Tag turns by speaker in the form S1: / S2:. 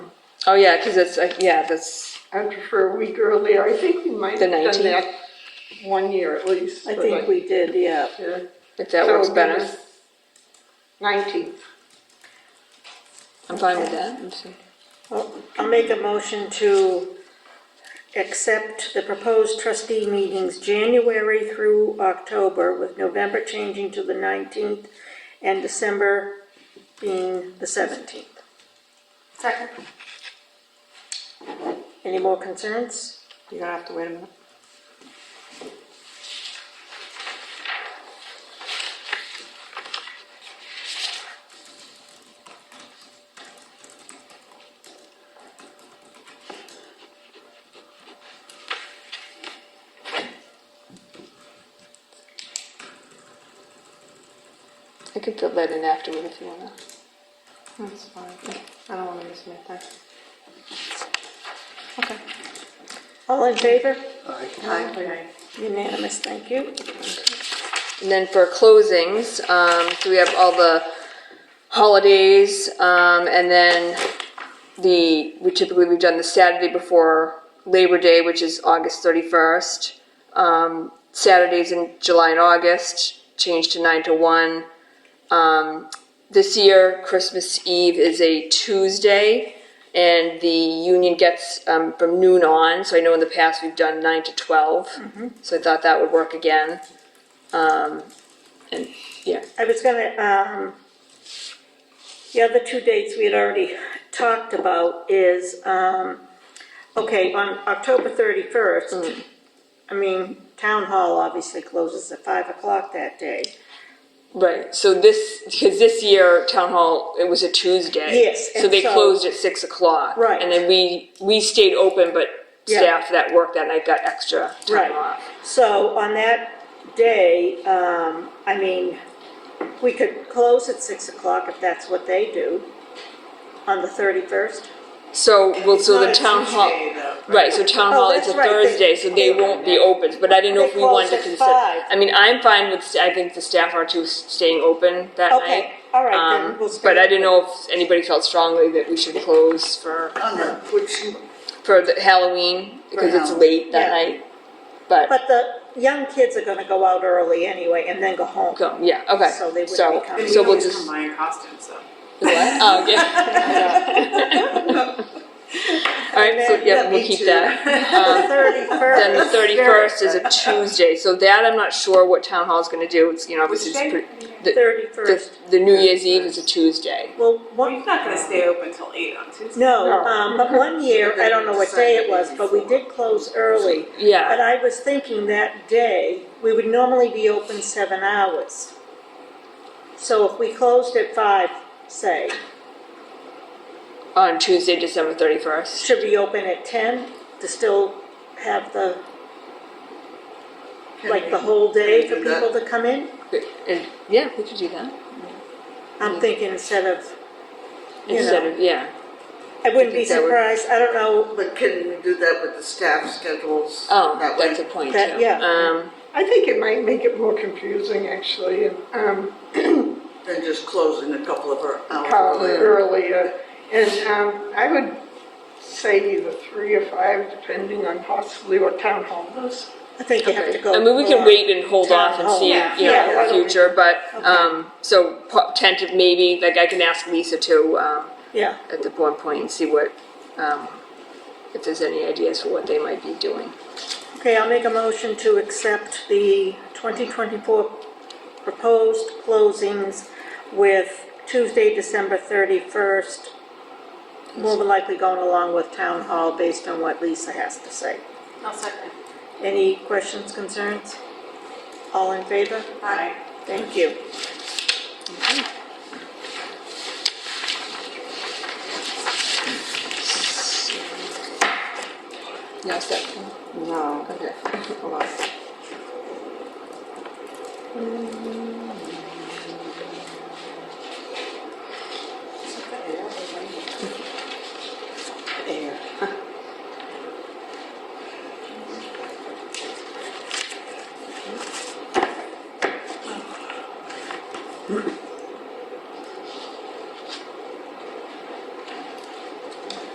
S1: Oh, yeah, because it's, uh, yeah, that's,
S2: I'd prefer a week earlier. I think we might
S1: The
S2: have done
S1: 19th.
S2: that one year at least.
S3: I
S2: but
S3: think we did, yeah.
S2: yeah.
S1: if that
S2: So
S1: works
S2: it
S1: better.
S2: was 19th.
S1: I'm fine with that. I'm s-
S3: Well, I'll make a motion to accept the proposed trustee meetings January through October, with November changing to the 19th and December being the 17th.
S4: Second.
S3: Any more concerns?
S4: You're gonna have to wait a minute.
S1: I can fill that in afterward if you want to.
S4: That's fine. I don't wanna miss anything. Okay.
S3: All in favor?
S4: Aye.
S3: Unanimous, thank you.
S1: And then for closings, um, so we have all the holidays, um, and then the, we typically, we've done the Saturday before Labor Day, which is August thirty-first. Um, Saturdays in July and August, changed to nine to one. Um, this year, Christmas Eve is a Tuesday, and the union gets, um, from noon on, so I know in the past we've done nine to twelve. So I thought that would work again. And, yeah,
S3: I was gonna, um, the other two dates we had already talked about is, um, okay, on October
S1: Mm.
S3: thirty-first, I mean, town hall obviously closes at five o'clock that day.
S1: right, so this, because this year, town hall, it was a Tuesday.
S3: Yes,
S1: So
S3: and
S1: they
S3: so-
S1: closed at six o'clock.
S3: Right.
S1: And then we, we stayed open, but
S3: Yeah.
S1: staff that worked that night got extra time
S3: Right.
S1: off.
S3: So on that day, um, I mean, we could close at six o'clock if that's what they do on the thirty-first.
S1: So, well, so the
S5: It's
S1: town
S5: not a
S1: hall,
S5: Tuesday, though.
S1: right, so town
S3: Oh,
S1: hall is a
S3: that's right, they-
S1: Thursday, so they won't be open, but I didn't know
S3: They
S1: if we
S3: close
S1: wanted to
S3: at
S1: consider.
S3: five.
S1: I mean, I'm fine with, st- I think the staff are too, s- staying open that night.
S3: Okay, all right, then
S1: Um,
S3: we'll stay
S1: But I didn't
S3: open.
S1: know if anybody felt strongly that we should close for,
S5: I don't know, which,
S1: for the Halloween, because it's
S5: Halloween.
S1: late that
S3: Yeah.
S1: night. But
S3: But the young kids are gonna go out early anyway and then go home.
S1: Go, yeah, okay.
S3: So they wouldn't be
S1: So-
S3: coming.
S1: So
S5: you
S1: we'll
S5: always
S1: just.
S5: come by in costume, so.
S1: What? Oh, yeah. All right, so, yeah, we'll keep that. Um,
S3: The
S1: Then the
S3: thirty-first,
S1: thirty-first is a Tuesday, so that I'm not sure what town hall's gonna do, it's, you know,
S5: Which
S1: obviously it's
S5: day?
S1: pretty. The, the,
S3: thirty-first,
S1: the New Year's Eve is a Tuesday.
S3: well,
S5: Well,
S3: one,
S5: he's not gonna stay open till eight on Tuesday.
S3: no, um, but one year, I don't know what day it was, but we did close early. But
S1: Yeah,
S3: I was thinking that day, we would normally be open seven hours. So if we closed at five, say,
S1: on Tuesday, December thirty-first.
S3: should we open at ten to still have the, like, the whole day for
S5: Can we do that?
S3: people to come in?
S1: Yeah, we could do that,
S3: I'm thinking instead of, You
S1: Mm. instead
S3: know.
S1: of, yeah,
S3: I wouldn't be
S1: think that would-
S3: surprised, I don't know,
S6: But can we do that with the staff schedules?
S1: oh,
S6: That way?
S1: that's a point too.
S3: That- yeah.
S1: Um,
S2: I think it might make it more confusing actually, and, um,
S6: Than just closing a couple of our hours
S2: probably
S6: earlier.
S2: earlier. And, um, I would say either three or five, depending on possibly what town hall does.
S3: I think you have to go.
S1: I mean, we can
S3: for-
S1: wait and hold off and
S3: town
S1: see,
S5: hall.
S1: you know,
S3: Yeah,
S1: in
S3: why
S1: the
S3: don't we-
S1: future, but, um, so po- tentative maybe, like I can ask Lisa to, um,
S3: Yeah,
S1: at the one point and see what, um, if there's any ideas for what they might be doing.
S3: okay, I'll make a motion to accept the 2024 proposed closings with Tuesday, December 31st, more than likely going along with town hall based on what Lisa has to say.
S4: I'll second.
S3: Any questions, concerns? All in favor?
S4: Aye.
S3: Thank you.
S1: No, is that,
S4: No.
S1: okay, hold on.